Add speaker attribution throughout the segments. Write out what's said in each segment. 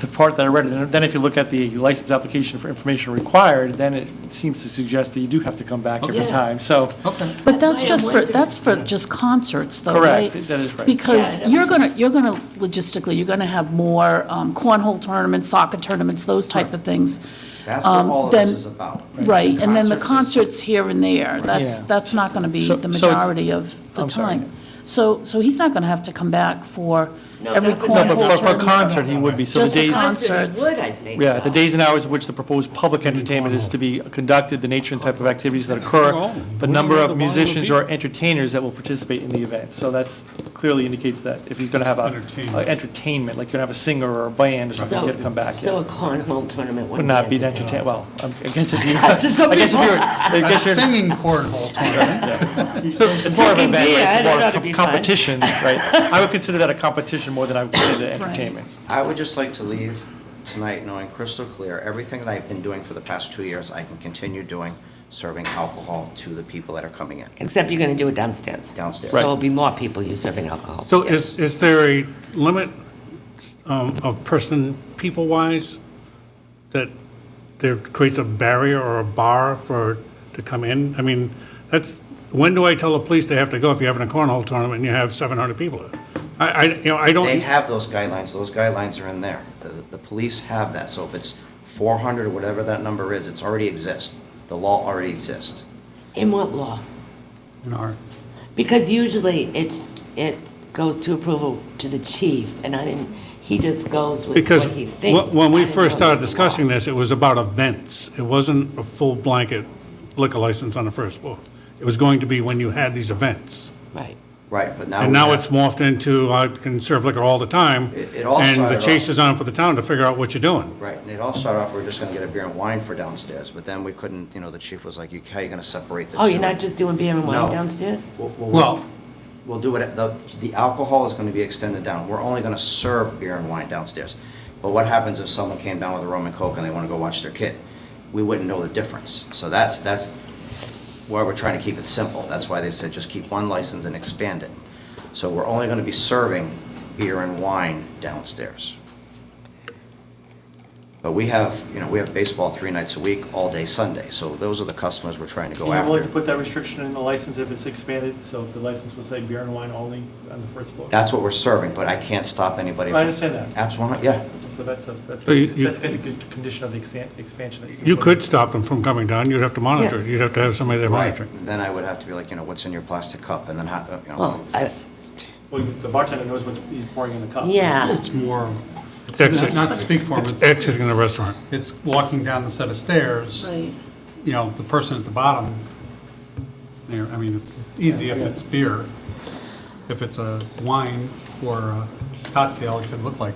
Speaker 1: the part that I read, and then if you look at the license application for information required, then it seems to suggest that you do have to come back every
Speaker 2: Okay.
Speaker 1: time, so.
Speaker 2: Okay.
Speaker 3: But that's
Speaker 2: I am
Speaker 3: just for,
Speaker 2: wondering-
Speaker 3: that's for just concerts, though, right?
Speaker 1: Correct, that is right.
Speaker 3: Because
Speaker 2: Yeah, I know.
Speaker 3: you're going to, you're going to, logistically, you're going to have more um, cornhole tournaments, soccer tournaments, those type of things.
Speaker 4: That's what
Speaker 3: Um,
Speaker 4: all of this
Speaker 3: then-
Speaker 4: is about.
Speaker 3: Right, and then the
Speaker 4: Concerts
Speaker 3: concerts here and there, that's,
Speaker 1: Yeah.
Speaker 3: that's not going to be
Speaker 1: So-
Speaker 3: the
Speaker 1: so it's-
Speaker 3: majority of the
Speaker 1: I'm sorry.
Speaker 3: time. So, so he's not going to have to come back for
Speaker 2: No,
Speaker 3: every
Speaker 2: not for- No,
Speaker 1: But but
Speaker 3: cornhole
Speaker 1: for a
Speaker 3: tournament.
Speaker 1: concert, he would be, so the
Speaker 3: Just the
Speaker 1: days,
Speaker 3: con-
Speaker 2: Concert
Speaker 3: Concerts.
Speaker 2: would, I think.
Speaker 1: yeah, the
Speaker 2: though.
Speaker 1: days and hours in which the proposed public entertainment is to be conducted, the nature and type of activities that
Speaker 5: Oh,
Speaker 1: occur, the number of musicians or entertainers that will participate in the event. So that's clearly indicates that if you're going to have a- a,
Speaker 5: Entertainment.
Speaker 1: entertainment, like you're going to have a singer or a band or something, you have to come back. yeah.
Speaker 2: So a cornhole tournament
Speaker 1: Would
Speaker 2: wouldn't
Speaker 1: not be
Speaker 2: entertaining.
Speaker 1: entertainment, well, I guess if you, I guess if
Speaker 2: some
Speaker 1: you're, I
Speaker 2: people.
Speaker 5: A
Speaker 1: guess you're.
Speaker 5: singing cornhole tournament.
Speaker 1: It's more of an
Speaker 2: Drinking
Speaker 1: event,
Speaker 2: beer, I
Speaker 1: right? It's more
Speaker 2: don't know,
Speaker 1: of a
Speaker 2: that'd be fun.
Speaker 1: competition, right? I would consider that a competition more than I would consider it entertainment.
Speaker 4: I would just like to leave tonight knowing crystal clear, everything that I've been doing for the past two years, I can continue doing, serving alcohol to the people that are coming in.
Speaker 2: Except you're going to do it downstairs.
Speaker 4: Downstairs.
Speaker 2: So
Speaker 4: Right.
Speaker 2: it'll be more people you serving alcohol.
Speaker 5: So is, is there a limit um, of person, people-wise, that there creates a barrier or a bar for, to come in? I mean, that's, when do I tell the police they have to go if you're having a cornhole tournament and you have 700 people? I, I, you know, I
Speaker 4: They
Speaker 5: don't,
Speaker 4: have those guidelines, those guidelines are in there. The, the police have that, so if it's four hundred or whatever that number is, it's already exists. The law already exists.
Speaker 2: In what law?
Speaker 5: in our-
Speaker 2: Because usually it's, it goes to approval to the chief, and I didn't, he just goes with
Speaker 5: because
Speaker 2: what he thinks.
Speaker 5: wh- when
Speaker 2: I
Speaker 5: we
Speaker 2: don't
Speaker 5: first
Speaker 2: know
Speaker 5: started
Speaker 2: the law.
Speaker 5: discussing this, it was about events. It wasn't a full blanket liquor license on the first floor. It was going to be when you had these events.
Speaker 2: Right.
Speaker 4: Right, but now.
Speaker 5: And
Speaker 4: we
Speaker 5: now
Speaker 4: have-
Speaker 5: it's morphed into, I can serve liquor all the time.
Speaker 4: It- it all
Speaker 5: And
Speaker 4: started
Speaker 5: the
Speaker 4: off-
Speaker 5: chase is on for the town to figure out what you're doing.
Speaker 4: Right, and it all started off, we we're just gonna get a beer and wine for downstairs, but then we couldn't, you know, the chief was like, you, how you gonna separate the two?
Speaker 2: Oh, you're not just doing beer and wine
Speaker 4: No.
Speaker 2: downstairs?
Speaker 4: We'll-
Speaker 5: Well-
Speaker 4: We'll do it, the, the alcohol is gonna be extended down, we're only gonna serve beer and wine downstairs. But what happens if someone came down with a rum and coke and they wanna go watch their kid? We wouldn't know the difference, so that's, that's why we're trying to keep it simple, that's why they said just keep one license and expand it. So we're only gonna be serving beer and wine downstairs. But we have, you know, we have baseball three nights a week, all day Sunday, so those are the customers we're trying to go
Speaker 1: Are you willing to
Speaker 4: after.
Speaker 1: put that restriction in the license if it's expanded? So if the license will say beer and wine only on the first floor?
Speaker 4: That's what we're serving, but I can't stop anybody.
Speaker 1: I
Speaker 4: from-
Speaker 1: understand that.
Speaker 4: Absolutely, yeah.
Speaker 1: So that's a, that's
Speaker 5: So you-
Speaker 1: a,
Speaker 5: you-
Speaker 1: that's a good condition of the extan- expansion that you can.
Speaker 5: You
Speaker 1: put
Speaker 5: could
Speaker 1: in.
Speaker 5: stop them from coming down, you'd have to monitor,
Speaker 2: Yes.
Speaker 5: it. you'd have to have somebody there
Speaker 4: Right,
Speaker 5: monitoring.
Speaker 4: then I would have to be like, you know, what's in your plastic cup, and then how, you know,
Speaker 2: Well, I,
Speaker 1: Well, you- the bartender knows what he's pouring in the cup.
Speaker 2: yeah.
Speaker 6: It's more,
Speaker 5: It's exit-
Speaker 6: not to speak for him.
Speaker 5: It's exiting the restaurant.
Speaker 6: It's walking down the set of stairs,
Speaker 3: Right.
Speaker 6: you know, the person at the bottom, there, I mean, it's easy if it's beer. If it's a wine or a cocktail, it could look like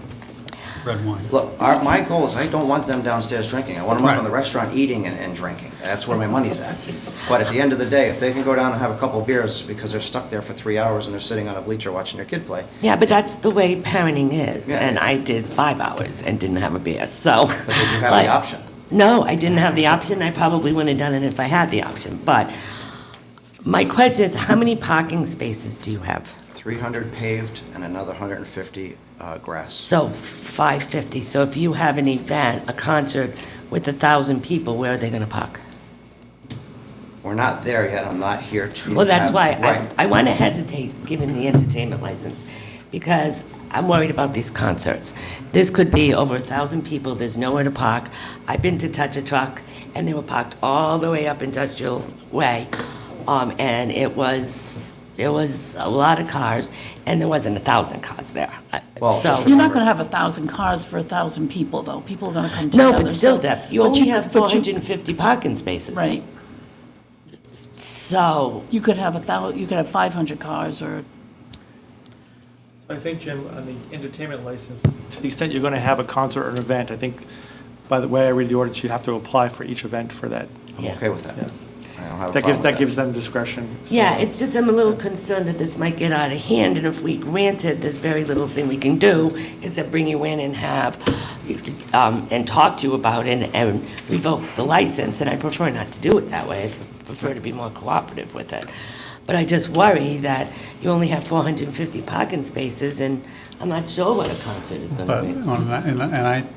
Speaker 6: red wine.
Speaker 4: look, our, my goal is I don't want them downstairs drinking. I want them up in
Speaker 6: Right.
Speaker 4: the restaurant eating and, and drinking. That's where my money's at. But at the end of the day, if they can go down and have a couple beers because they're stuck there for three hours and they're sitting on a bleacher watching their kid play,
Speaker 2: Yeah, but that's the way parenting is,
Speaker 4: Yeah,
Speaker 2: and
Speaker 4: yeah.
Speaker 2: I did five hours and didn't have a beer, so. But
Speaker 4: did you have the option?
Speaker 2: No, I didn't have the option, I probably wouldn't have done it if I had the option, but my question is, how many parking spaces do you have?
Speaker 4: three hundred paved and another hundred and fifty, uh, grass.
Speaker 2: So 550, so if you have an event, a concert with a 1,000 people, where are they gonna park?
Speaker 4: We're not there yet. I'm not here to.
Speaker 2: Well, that's
Speaker 4: have-
Speaker 2: why
Speaker 4: Right.
Speaker 2: I, I want to hesitate giving the entertainment license, because I'm worried about these concerts. This could be over a thousand people, there's nowhere to park. I've been to Touch a Truck, and they were parked all the way up Industrial Way, um, and it was, it was a lot of cars, and there wasn't a thousand cars there. I-
Speaker 4: Well,
Speaker 2: So,
Speaker 4: just
Speaker 3: You're not going to have a 1,usand cars for a 1,000 people, though. People are going to come together.
Speaker 2: no, but still,
Speaker 3: so-
Speaker 2: Deb, you
Speaker 3: but
Speaker 2: only have
Speaker 3: but you-
Speaker 2: 450 parking spaces.
Speaker 3: Right.
Speaker 2: So,
Speaker 3: You could have a thou, you could have 500 cars or
Speaker 1: I think, Jim, on the entertainment license, to the extent you're going to have a concert or an event, I think, by the way I read the ordinance, you have to apply for each event for that.
Speaker 4: I'm
Speaker 2: Yeah.
Speaker 4: okay with that. I
Speaker 1: Yeah.
Speaker 4: don't have
Speaker 1: That gives,
Speaker 4: a problem with
Speaker 1: that gives them discretion. so-
Speaker 2: Yeah, it's just I'm a little concerned that this might get out of hand, and if we grant it, there's very little thing we can do except bring you in and have, um, and talk to you about it and revoke the license, and I prefer not to do it that way. I prefer to be more cooperative with it. But I just worry that you only have 450 parking spaces, and I'm not sure what a concert is going
Speaker 6: But,
Speaker 2: to be.
Speaker 6: and I, and I